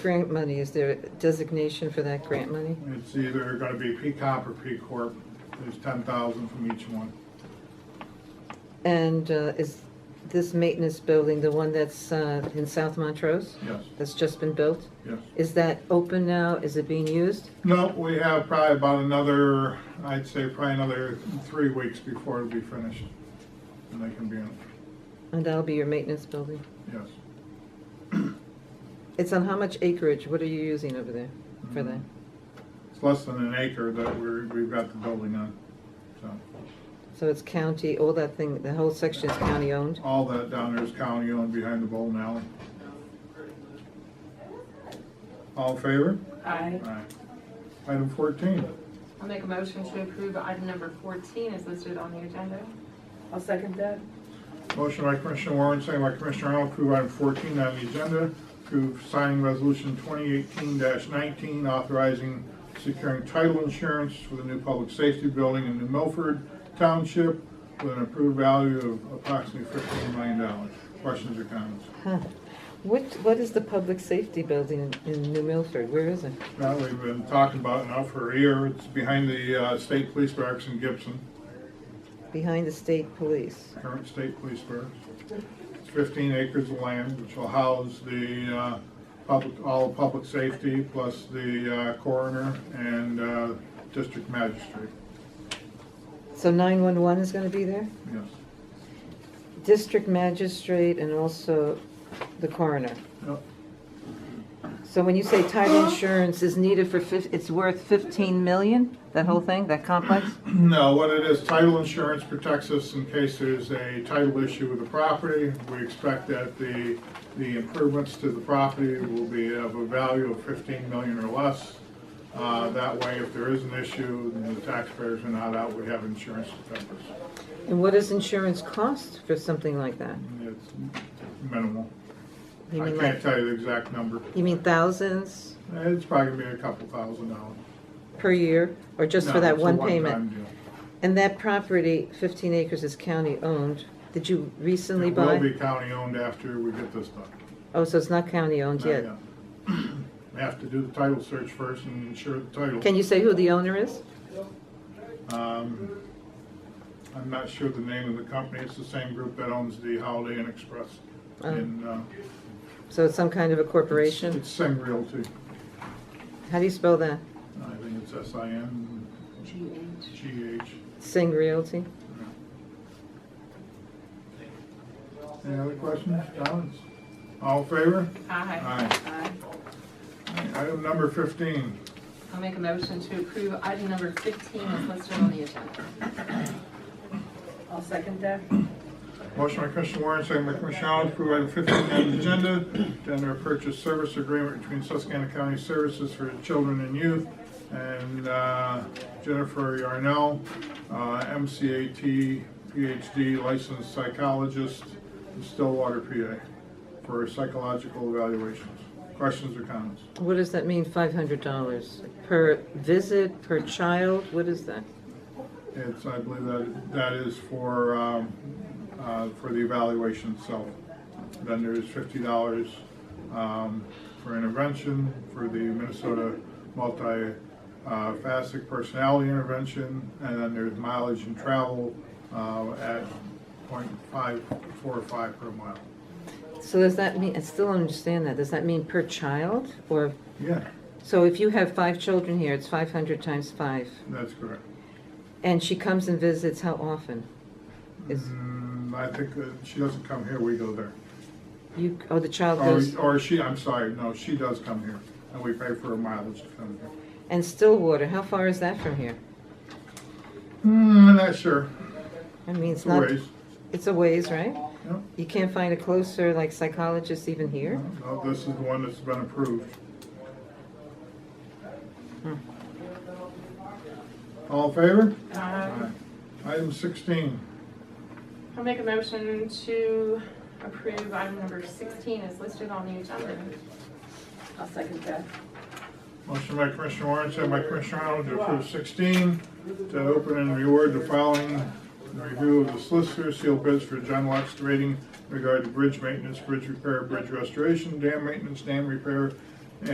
grant money, is there a designation for that grant money? It's either gonna be P-COP or P-Corp. There's ten thousand from each one. And uh, is this maintenance building, the one that's uh, in South Montrose, Yes, that's just been built? yes. Is that open now? Is it being used? No, we have probably about another, I'd say probably another three weeks before it'll be finished. And they can be in, And that'll be your maintenance building. yes. It's on how much acreage? What are you using over there for that? It's less than an acre that we're, we've got the building on. So, So it's county, all that thing, the whole section is county owned? all that down there is county owned behind the bowling alley. All in favor? Aye. Aye. Item fourteen. I'll make a motion to approve item number 14 is listed on the agenda. I'll second that. Motion by Commissioner Warren, second by Commissioner Arnold, approve item 14 on the agenda, approve signing resolution 2018-19 authorizing securing title insurance for the new public safety building in New Milford Township with an approved value of approximately $15 million. Questions or comments? Huh. What, what is the public safety building in in New Milford? Where is it? Now, we've been talking about it now for a year, it's behind the uh, State Police Barracks in Gibson, Behind the state police. current State Police Barracks. It's 15 acres of land, which will house the uh, public, all of public safety, plus the uh, coroner and uh, district magistrate. So 911 is going to be there? Yes, District magistrate and also the coroner. Yep. So when you say title insurance is needed for, fif- it's worth 15 million, that whole thing, that complex? No, what it is, title insurance protects us in case there's a title issue with the property. We expect that the, the improvements to the property will be of a value of fifteen million or less. Uh, That way, if there is an issue, then the taxpayers are not out, we have insurance to cover us. And what does insurance cost for something like that? It's minimal. I You mean can't like, tell you the exact number. you mean thousands It's probably gonna be a couple thousand dollars. per year, or just No, for that it's a one one-time payment? deal. And that property, 15 acres, is county-owned. Did you recently It will buy? be county-owned after we get this done. Oh, so it's not county-owned Not yet? yet. We Have to do the title search first and ensure the title. Can you say who the owner is? Um, I'm not sure the name of the company. It's the same group that owns the Holiday Inn Express in, uh, So it's some kind of a corporation? it's Sing Realty. How do you spell that? I think it's S-I-N-G-H. GH. Singh Realty? Any other questions, comments? All in favor? Aye. Aye. Aye. Item number 15. I'll make a motion to approve item number 15 is listed on the agenda. I'll second that. Motion by Commissioner Warren, second by Commissioner Arnold, to approve item 15 on the agenda, tender purchase service agreement between Susquehanna County Services for Children and Youth and uh, Jennifer Yarnell, uh, MCAT PhD licensed psychologist in Stillwater, PA, for psychological evaluations. Questions or comments? What does that mean, $500 per visit, per child? What is that? It's, I believe that, that is for, um, uh, for the evaluation itself. Then there's fifty dollars, um, for intervention, for the Minnesota multi, uh, facet personality intervention, and then there's mileage and travel, uh, at point five, four or five per mile. So does that mean, I still don't understand that. Does that mean per child? Or, Yeah, so if you have five children here, it's 500 times five. that's correct. And she comes and visits how often? Is, Mm, I think that she doesn't come here, we go there. you, oh, the child Or, goes, or she, I'm sorry, no, she does come here, and we pay for her mileage to come here. and Stillwater, how far is that from here? Hmm, I'm not sure. I mean, it's Two not, ways. it's a ways, right? Yeah. You can't find a closer, like, psychologist even here? No, This is the one that's been approved. All in favor? Aye. Item sixteen. I'll make a motion to approve item number 16 is listed on the agenda. I'll second that. Motion by Commissioner Warren, second by Commissioner Arnold to approve sixteen, to open and reward the following review of the solicitor sealed bids for John Locke's rating regarding bridge maintenance, bridge repair, bridge restoration, dam maintenance, dam repair,